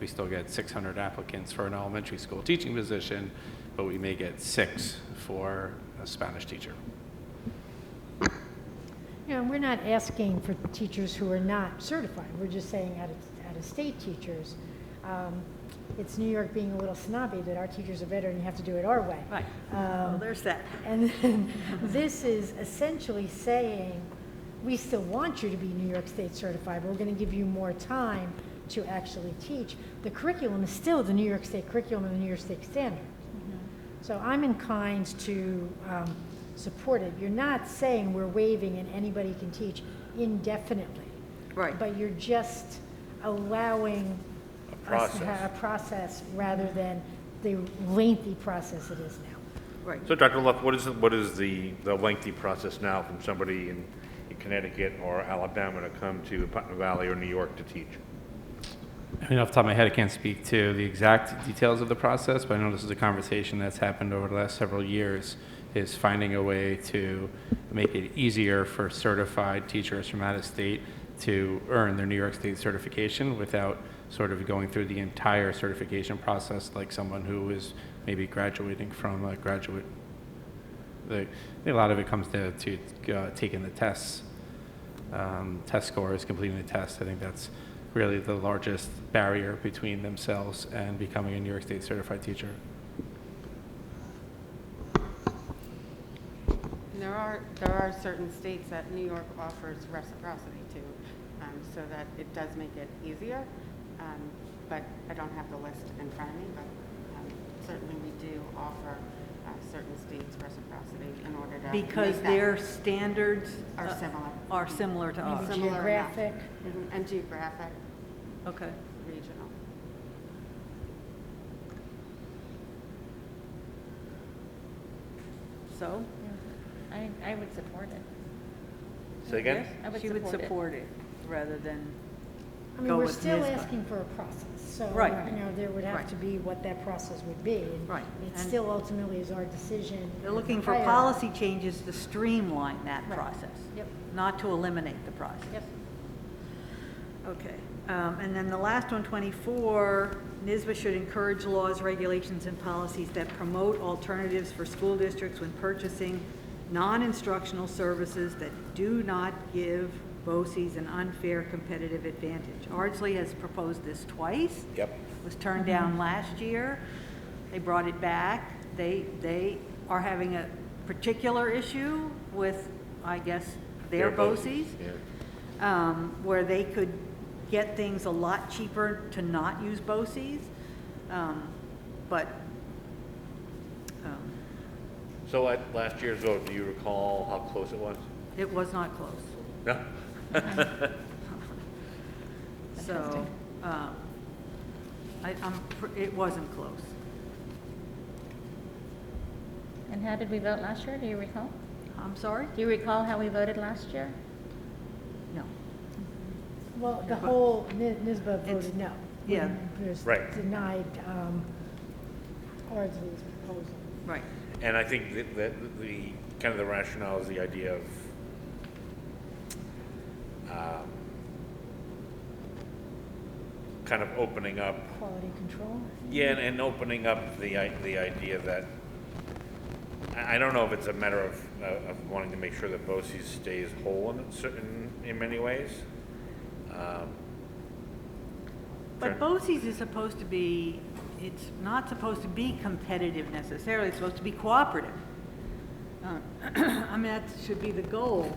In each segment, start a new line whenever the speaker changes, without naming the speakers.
we still get 600 applicants for an elementary school teaching position, but we may get six for a Spanish teacher.
No, we're not asking for teachers who are not certified. We're just saying out of, out of state teachers. Um, it's New York being a little snobby that our teachers are better and you have to do it our way.
Right. Well,
Um,
there's that.
and then this is essentially saying, we still want you to be New York State certified, but we're going to give you more time to actually teach. The curriculum is still the New York State curriculum and the New York State standard. So I'm inclined to um, support it. You're not saying we're waiving and anybody can teach indefinitely.
Right.
But you're just allowing
A
us to
process.
have a process rather than the lengthy process it is now.
Right.
So Dr. Luff, what is, the- what is the, the lengthy process now from somebody in in Connecticut or Alabama to come to Putnam Valley or New York to teach?
I mean, off the top of my head, I can't speak to the exact details of the process, but I know this is a conversation that's happened over the last several years, is finding a way to make it easier for certified teachers from out of state to earn their New York State certification without sort of going through the entire certification process like someone who is maybe graduating from a graduate. The, a lot of it comes down to uh, taking the tests um, test scores, completing the test. I think that's really the largest barrier between themselves and becoming a New York State certified teacher.
And There are, there are certain states that New York offers reciprocity to, um, so that it does make it easier. Um, But I don't have the list in front of me, but um, certainly we do offer uh, certain states reciprocity in order to. make
Because
that
their standards.
Are
uh,
similar.
Are similar to
Maybe
ours.
similar enough.
uh, Geographic.
Mhm, And geographic,
Okay.
regional.
So?
I, I would support it.
Say again?
yes,
I would
She would
support it.
support it rather than,
I mean,
go
we're
with
still
NISBA.
asking for a process, so,
Right.
you know, there would have
Right.
to be what that process would be. and
Right.
It
And-
still ultimately is our decision.
they're looking for
Higher.
policy changes to streamline that
Right.
process.
Yep.
Not to eliminate the process.
Yep.
Okay, um, and then the last one, 24, NISBA should encourage laws, regulations, and policies that promote alternatives for school districts when purchasing non-instructional services that do not give BOCES an unfair competitive advantage. Ardsley has proposed this twice.
Yep.
Was turned down last year. They brought it back. They, they are having a particular issue with, I guess, their BOCES
Yeah.
um, where they could get things a lot cheaper to not use BOCES. Um, but, um,
So at last year's vote, do you recall how close it was?
it was not close.
No?
So, um, I, I'm, pr- it wasn't close.
And how did we vote last year? Do you recall?
I'm sorry?
Do you recall how we voted last year?
No.
Well, the whole Ni- NISBA
It's-
voted no.
yeah.
It was
Right.
Denied, um, Ardsley's proposal.
Right.
And I think that, that the, kind of the rationale is the idea of, um, kind of opening up
Quality control?
Yeah, and, and opening up the, i- the idea that, I, I don't know if it's a matter of, uh, of wanting to make sure that BOCES stays whole in certain, in many ways. Um,
But
Sure.
BOCES is supposed to be, it's not supposed to be competitive necessarily, it's supposed to be cooperative. Uh, I mean, that should be the goal.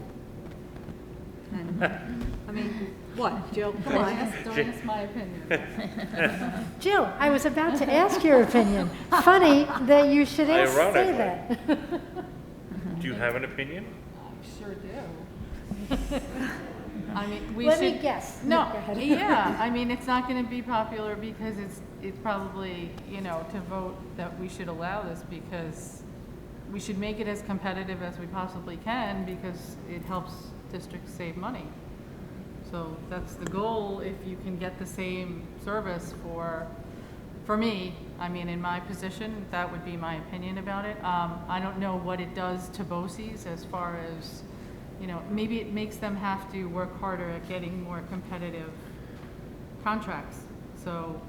And, I mean, what, Jill, come on.
Jane-
Jill, I was about to ask your opinion. Funny that you should ask, say
Ironically.
that.
Do you have an opinion?
I sure do. I mean, we
Let
should.
me guess.
No,
Go ahead.
yeah, I mean, it's not gonna be popular because it's, it's probably, you know, to vote that we should allow this because we should make it as competitive as we possibly can because it helps districts save money. So that's the goal, if you can get the same service for, for me, I mean, in my position, that would be my opinion about it. Um, I don't know what it does to BOCES as far as, you know, maybe it makes them have to work harder at getting more competitive contracts. So